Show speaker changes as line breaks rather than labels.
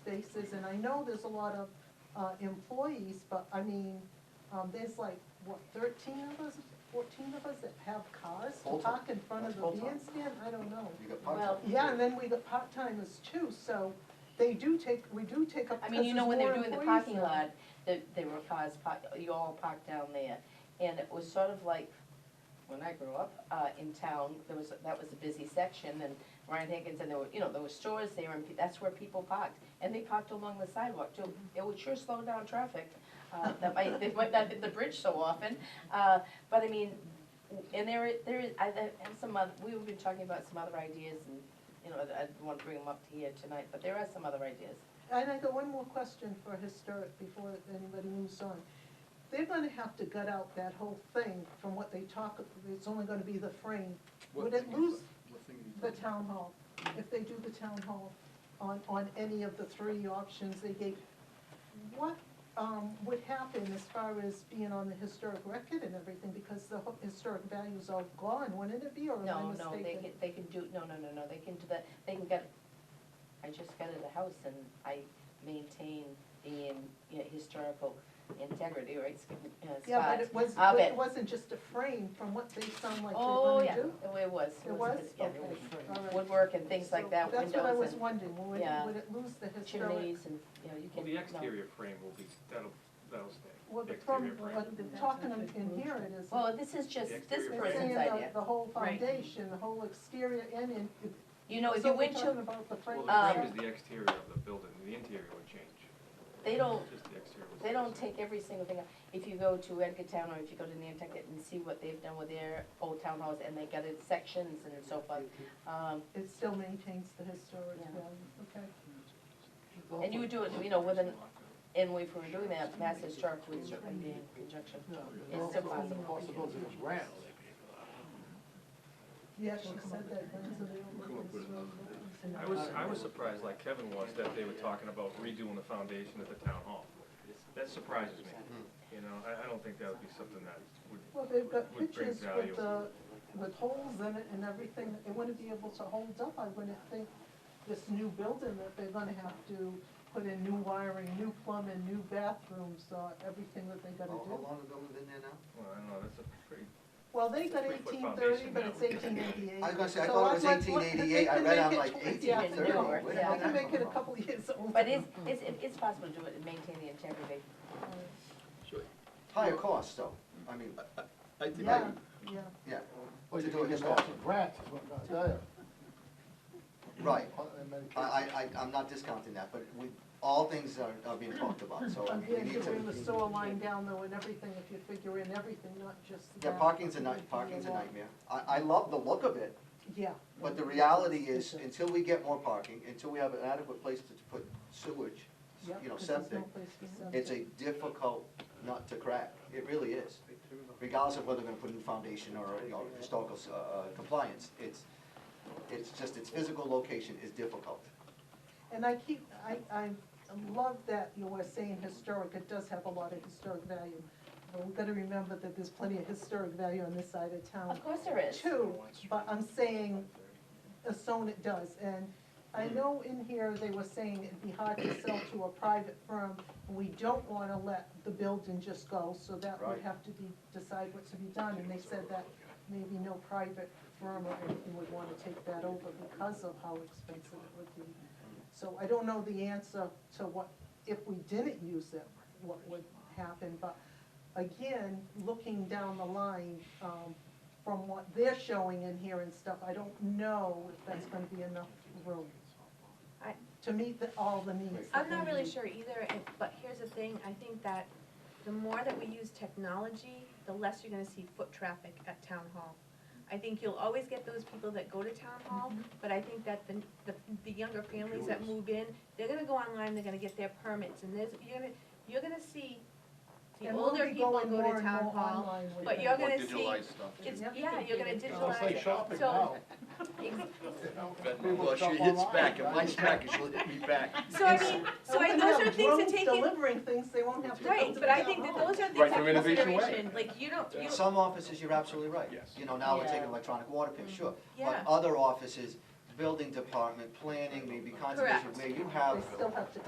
spaces, and I know there's a lot of, uh, employees, but I mean, um, there's like, what, thirteen of us, fourteen of us that have cars to
Full-time.
park in front of
That's
the
full-time.
bandstand, I don't know.
You got
Well,
part-time.
Yeah, and then we got part-timers too, so they do take, we do take up,
I
because
mean, you
there's
know, when
more
they're doing the
employees
parking
now.
lot, that there were cars parked, you all parked down there. And it was sort of like, when I grew up, uh, in town, there was, that was a busy section and Ryan Higgins and there were, you know, there were stores there and pe- that's where people parked. And they parked along the sidewalk too. It would sure slow down traffic. Uh, that might, they might not hit the bridge so often. Uh, but I mean, and there, i- there is, I, I- and some other, we've been talking about some other ideas and, you know, I I don't want to bring them up here tonight, but there are some other ideas.
And I got one more question for historic before anybody moves on. They're gonna have to gut out that whole thing from what they talk, it's only gonna be the frame.
What
Would it
thing is
lose
that? What thing are you
the
talking
town hall, if they do the town hall on, on any of the three options they gave. What, um, would happen as far as being on the historic record and everything, because the ho- historic value's all gone, wouldn't it be, or am I
No, no, they
mistaken?
can, they can do, no, no, no, no, they can do that, they can get, I just got a house and I maintain the, um, you know, historical integrity, right, sc- uh,
Yeah, but
spots.
it was,
I'll
but it
bet.
wasn't just a frame from what they sound like
Oh,
they're
yeah,
gonna do?
it- it was,
It
it
was?
was, yeah,
Okay,
it was.
all right.
Woodwork and things like
So
that,
That's what I was
windows
wondering, would it,
Yeah.
would it lose the
and
historic,
chimneys and, you know, you can.
Well, the
no.
exterior frame will be, that'll, that'll stay.
well, the
The
problem,
exterior frame.
what the talking in in here it is.
Well, this is just
The
this
exterior
it's
frame.
person's
saying
idea.
The the whole
Right.
foundation, the whole exterior and in.
You know, if
So
you
we're
went
talking
to,
about the frame. Uh,
Well, the frame
Um,
is the exterior of the building, the interior would change.
they don't,
Just the exterior. would
They
stay the
don't
same.
take every single thing, out. if you go to Edgartown or if you go to Nantucket and see what they've done with their old town halls and they got it sections and so forth. Um,
It still maintains the historic
Yeah.
value, okay.
and you would do it, you know, with an, and if we were doing that, Mass Historic would certainly be in conjunction. It's still possible.
Possibilities of grants.
Yeah, she said that, that's available.
I was, I was surprised, like Kevin was, that they were talking about redoing the foundation at the town hall. That surprises me, you know, I, I don't think that would be something that would,
Well, they've got
Would bring
pictures
value.
with the, with holes in it and everything, they wouldn't be able to hold up, I wouldn't think, this new building that they're gonna have to put in new wiring, new plumbing, new bathrooms, uh, everything that they
How
gotta
how
do.
long ago we been there now?
well, I don't know, that's a pretty,
Well, they got
Three-foot
eighteen thirty,
foundation
but
now.
it's eighteen eighty-eight.
I was gonna say, I thought it was eighteen eighty-eight, I read on like eighteen thirty.
Yeah.
They can make it a couple of years older.
But it's, it's, it's possible to do it and maintain the integrity.
Higher cost, though, I mean,
I think,
Yeah, yeah.
yeah,
Well,
To
you
do it
can get
yourself.
lots of grants, is what I'm gonna tell
right,
you. In many
I,
cases.
I, I- I'm not discounting that, but we, all things are, are being talked about, so
I'm
we need
to bring the
to.
sewer line down though and everything, if you figure in everything, not just that.
Yeah, parking's a night, parking's a nightmare. I, I love the look of it,
Yeah.
but the reality is, until we get more parking, until we have an adequate place to put sewage,
Yep,
you know,
'cause there's no
septic,
place for septic.
it's a difficult nut to crack, it really is. Regardless of whether they're gonna put a new foundation or, you know, historical, uh, uh, compliance, it's, it's just, its physical location is difficult.
And I keep, I, I love that you were saying historic, it does have a lot of historic value. But we've gotta remember that there's plenty of historic value on this side of town
Of course there is.
too, but I'm saying, assume it does. And I know in here, they were saying it'd be hard to sell to a private firm. We don't wanna let the building just go, so that would
Right.
have to be, decide what to be done. And they said that maybe no private firm or anything would wanna take that over because of how expensive it would be. So I don't know the answer to what, if we didn't use it, what would happen, but again, looking down the line, um, from what they're showing in here and stuff, I don't know if that's gonna be enough room
I-
to meet the, all the needs. that
I'm not
they
really
need.
sure either, and- but here's the thing, I think that the more that we use technology, the less you're gonna see foot traffic at town hall. I think you'll always get those people that go to town hall, but I think that the, the, the younger families that move in, they're gonna go online, they're gonna get their permits, and there's, you're gonna, you're gonna see the
And we'll
older
be
people
going
go
more
to
and
town
more
hall,
online with
but
it.
you're
or
gonna see,
digitalized stuff
it's,
too.
Yep.
yeah, you're gonna
It's almost like
digitalize it,
shopping
so.
now.
ex-
People
Well, she
shop
hits
online,
back,
right?
and my smack, and she'll hit me back.
So I mean, so I,
We're gonna
those are
have
things to
drones
take in,
Delivering things, they won't have to. come
Right,
to
but I
town
think that
hall.
those are things
Right
that
through Innovation Way.
consideration, like, you don't, you,
Some offices, you're absolutely right.
Yes.
You know, now we're taking
Yeah.
electronic water picks, sure.
yeah,
But other offices, building department, planning, maybe conservation,
Correct.
where you have
They still have to